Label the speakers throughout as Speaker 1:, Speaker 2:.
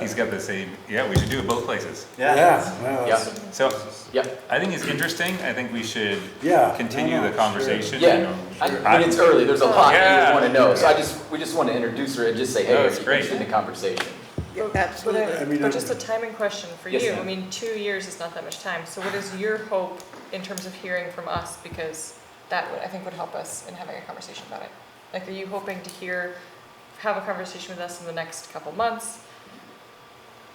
Speaker 1: he's got the same, yeah, we should do it both places.
Speaker 2: Yeah, well,
Speaker 3: Yeah,
Speaker 2: it's-
Speaker 1: So
Speaker 3: yeah,
Speaker 1: I think it's interesting. I think we should
Speaker 2: Yeah, no,
Speaker 1: continue
Speaker 2: no,
Speaker 1: the
Speaker 2: sure.
Speaker 1: conversation.
Speaker 3: yeah. I, I mean, it's early, there's a lot that
Speaker 1: Yeah.
Speaker 3: you wanna know, so I just, we just wanna introduce her and just say, hey,
Speaker 1: No,
Speaker 3: are
Speaker 1: Oh, it's
Speaker 3: you
Speaker 1: great.
Speaker 3: interested in the conversation?
Speaker 4: But,
Speaker 5: Absolutely.
Speaker 4: I-
Speaker 2: I mean,
Speaker 4: but
Speaker 2: I-
Speaker 4: just a timing question for
Speaker 3: Yes,
Speaker 4: you, I
Speaker 3: ma'am.
Speaker 4: mean, two years is not that much time, so what is your hope in terms of hearing from us? Because that would, I think would help us in having a conversation about it. Like, are you hoping to hear, have a conversation with us in the next couple months?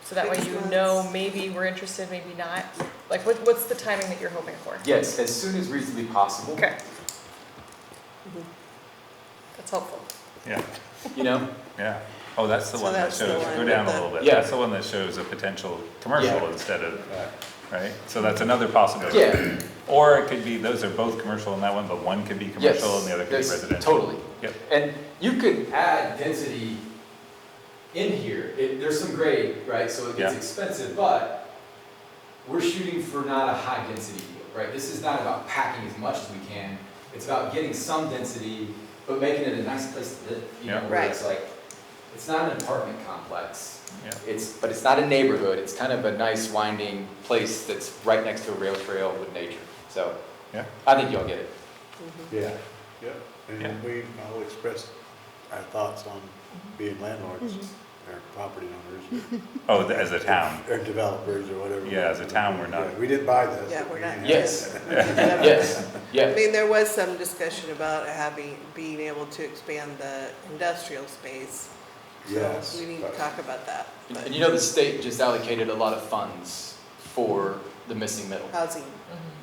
Speaker 4: So that way
Speaker 5: Six
Speaker 4: you
Speaker 5: months.
Speaker 4: know, maybe we're interested, maybe not, like, what, what's the timing that you're hoping for?
Speaker 3: Yes, as soon as reasonably possible,
Speaker 4: Okay. That's helpful.
Speaker 1: Yeah,
Speaker 3: you know?
Speaker 1: yeah. Oh, that's the
Speaker 5: So
Speaker 1: one that
Speaker 5: that's the
Speaker 1: shows,
Speaker 5: one
Speaker 1: go down a
Speaker 5: with the-
Speaker 1: little bit.
Speaker 3: Yeah.
Speaker 1: That's the one that shows a potential commercial
Speaker 3: Yeah.
Speaker 1: instead of, right? So that's another possibility.
Speaker 3: Yeah,
Speaker 1: Or it could be, those are both commercial in that one, but one could be
Speaker 3: yes,
Speaker 1: commercial and the other could be
Speaker 3: yes,
Speaker 1: residential.
Speaker 3: totally.
Speaker 1: Yep.
Speaker 3: And you could add density in here, it, there's some grade, right, so it gets
Speaker 1: Yeah.
Speaker 3: expensive, but we're shooting for not a high density deal, right? This is not about packing as much as we can, it's about getting some density, but making it a nice place to live, you know,
Speaker 1: Yeah.
Speaker 3: where
Speaker 5: Right.
Speaker 3: it's like, it's not an apartment complex.
Speaker 1: Yeah.
Speaker 3: It's, but it's not a neighborhood, it's kind of a nice winding place that's right next to a rail trail with nature, so.
Speaker 1: Yeah.
Speaker 3: I think y'all get it.
Speaker 2: yeah, yeah.
Speaker 1: Yeah.
Speaker 2: And we all expressed our thoughts on
Speaker 3: Mm-hmm.
Speaker 2: being landlords, or property owners,
Speaker 1: Oh, th- as a town.
Speaker 2: or developers, or whatever.
Speaker 1: Yeah, as a town, we're not-
Speaker 2: Yeah, We didn't buy this.
Speaker 5: Yeah, we're not.
Speaker 2: We-
Speaker 3: Yes,
Speaker 5: Whatever.
Speaker 3: yes,
Speaker 5: I
Speaker 3: yeah,
Speaker 5: mean, there was some discussion about having, being able to expand the industrial space. so
Speaker 2: Yes.
Speaker 5: We need to
Speaker 2: but-
Speaker 5: talk about that,
Speaker 3: And-
Speaker 5: but
Speaker 3: and you know the state just allocated a lot of funds for the missing middle, Mm-hmm.
Speaker 5: housing,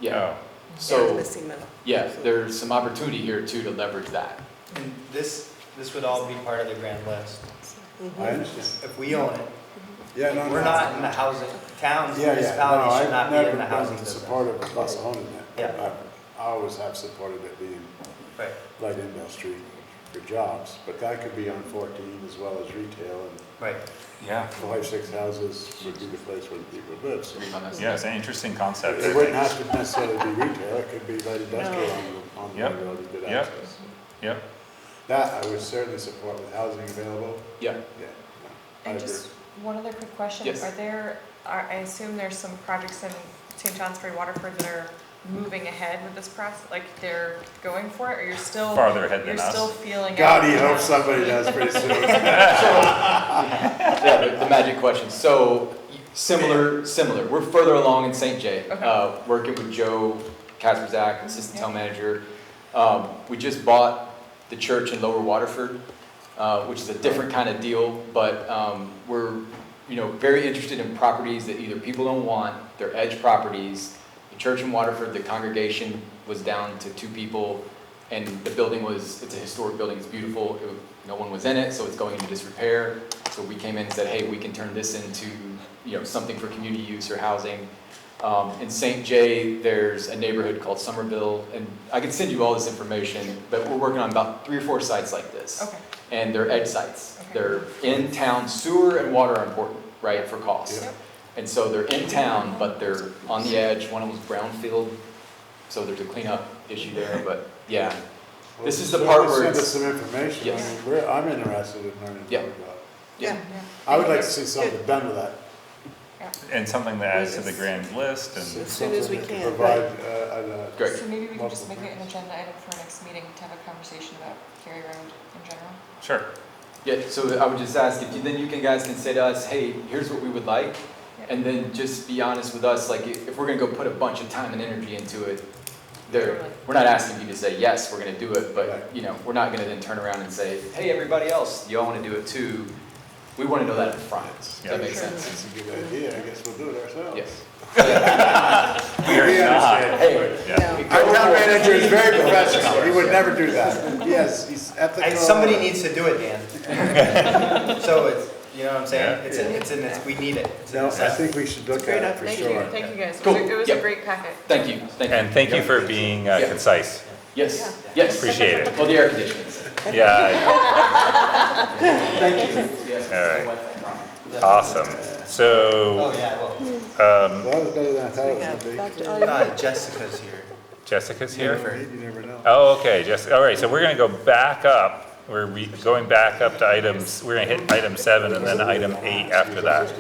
Speaker 3: yeah,
Speaker 1: Oh,
Speaker 5: yeah, the
Speaker 3: so,
Speaker 5: missing middle.
Speaker 3: yeah, there's some opportunity here too to leverage that.
Speaker 6: And this, this would all be part of the grand list.
Speaker 3: Mm-hmm.
Speaker 2: I understand.
Speaker 6: If we own it,
Speaker 2: Yeah, no, no.
Speaker 6: we're not in the housing, towns,
Speaker 2: Yeah, yeah, no,
Speaker 6: municipalities should
Speaker 2: I've
Speaker 6: not be
Speaker 2: never
Speaker 6: in the housing
Speaker 2: been
Speaker 6: business.
Speaker 2: supportive of us owning it.
Speaker 6: Yeah.
Speaker 2: I always have supported it being
Speaker 6: Right.
Speaker 2: light industry for jobs, but that could be on fourteen as well as retail, and
Speaker 6: Right.
Speaker 1: yeah.
Speaker 2: five, six houses would be the place where people live, so.
Speaker 3: Read my message.
Speaker 1: Yeah, it's an interesting concept. I
Speaker 2: It wouldn't
Speaker 1: think.
Speaker 2: have to necessarily be retail, it could be light industrial on the, on
Speaker 1: Yep,
Speaker 2: the road to good
Speaker 1: yep.
Speaker 2: access.
Speaker 1: Yep,
Speaker 2: That I would certainly support with housing available,
Speaker 3: Yeah,
Speaker 2: yeah. I
Speaker 4: And
Speaker 2: agree.
Speaker 4: just one other quick question.
Speaker 3: Yes.
Speaker 4: Are there, are, I assume there's some projects in St. Johnsbury, Waterford that are moving ahead with this process? Like they're going for it or you're still?
Speaker 1: Farther ahead than
Speaker 4: You're
Speaker 1: us.
Speaker 4: still feeling out?
Speaker 2: God, he hopes somebody does pretty soon.
Speaker 3: yeah, the, the magic question. So similar, similar. We're further along in St. Jay.
Speaker 4: Okay.
Speaker 3: Uh, working with Joe Kasperzak, assistant town manager. Um, we just bought the church in Lower Waterford, uh, which is a different kind of deal, but um, we're you know very interested in properties that either people don't want, they're edge properties. The church in Waterford, the congregation was down to two people, and the building was it's a historic building. It's beautiful. It, was- no one was in it, so it's going into disrepair. So we came in and said, hey, we can turn this into, you know, something for community use or housing. Um, in St. Jay, there's a neighborhood called Somerville, and I can send you all this information, but we're working on about three or four sites like this.
Speaker 4: Okay,
Speaker 3: And they're edge sites.
Speaker 4: Okay.
Speaker 3: They're in town, sewer and water are important, right, for cost.
Speaker 2: Yeah.
Speaker 4: Yep.
Speaker 3: And so they're in town, but they're on the edge, one of them's brownfield, so there's a cleanup issue there, but yeah. This is the part where
Speaker 2: Send us
Speaker 3: it's-
Speaker 2: some information, I
Speaker 3: Yes.
Speaker 2: mean, we're, I'm interested in learning more
Speaker 3: Yeah.
Speaker 2: about. it.
Speaker 4: yeah.
Speaker 2: I would like to see something done with that.
Speaker 1: and something that adds to the grand list
Speaker 5: So-
Speaker 1: and,
Speaker 5: As soon as we
Speaker 2: Something that
Speaker 5: can,
Speaker 2: Provide,
Speaker 5: right.
Speaker 2: uh, uh,
Speaker 3: Great.
Speaker 4: So maybe we can just make
Speaker 2: Multiple
Speaker 4: it an
Speaker 2: things.
Speaker 4: agenda item for our next meeting to have a conversation about Cary Road in general.
Speaker 1: sure,
Speaker 3: Yeah, so I would just ask if you, then you can guys can say to us, hey, here's what we would like, and then just be honest with us, like if if we're gonna go put a bunch of time and energy into it, there, we're not asking you to say, yes, we're gonna do it, but,
Speaker 2: Right.
Speaker 3: you know, we're not gonna then turn around and say, hey, everybody else, y'all wanna do it too. We wanna know that up front. Does
Speaker 1: Yeah.
Speaker 3: that make
Speaker 4: Sure.
Speaker 3: sense?
Speaker 2: That's a good idea, I guess we'll do it ourselves.
Speaker 3: Yes.
Speaker 1: we are not,
Speaker 3: Hey,
Speaker 1: yeah.
Speaker 5: No.
Speaker 2: Our town manager is very professional, he would never do that. Yes, he's
Speaker 6: I-
Speaker 2: ethical.
Speaker 6: Somebody needs to do it, Dan. So it's, you know what I'm saying?
Speaker 1: Yeah.
Speaker 6: It's, in- it's in this, we need it. It's in
Speaker 2: No,
Speaker 6: this.
Speaker 2: I think we should look
Speaker 5: Fair
Speaker 2: at it
Speaker 5: enough,
Speaker 2: for
Speaker 5: thank you.
Speaker 2: sure.
Speaker 4: Thank you guys. It
Speaker 3: Cool.
Speaker 4: was a- It was a
Speaker 3: Yep.
Speaker 4: great packet.
Speaker 3: thank you, thank you.
Speaker 1: And thank you for being uh,
Speaker 3: Yeah.
Speaker 1: concise.
Speaker 3: Yes, yes.
Speaker 1: Appreciate it.
Speaker 3: Well, the air conditioners.
Speaker 1: Yeah,
Speaker 3: Thank you. Yes.
Speaker 1: All awesome.
Speaker 6: Oh,
Speaker 1: So,
Speaker 6: yeah, well,
Speaker 2: Well,
Speaker 1: um,
Speaker 2: That was better than I thought it was
Speaker 5: Back to
Speaker 2: gonna
Speaker 5: all
Speaker 6: uh, Jessica's here.
Speaker 1: Jessica's
Speaker 2: be.
Speaker 1: here?
Speaker 2: You never know.
Speaker 1: Oh, okay, Jess, all right, so we're gonna go back up. We're re- going back up to items, we're gonna hit item seven and then item eight after that.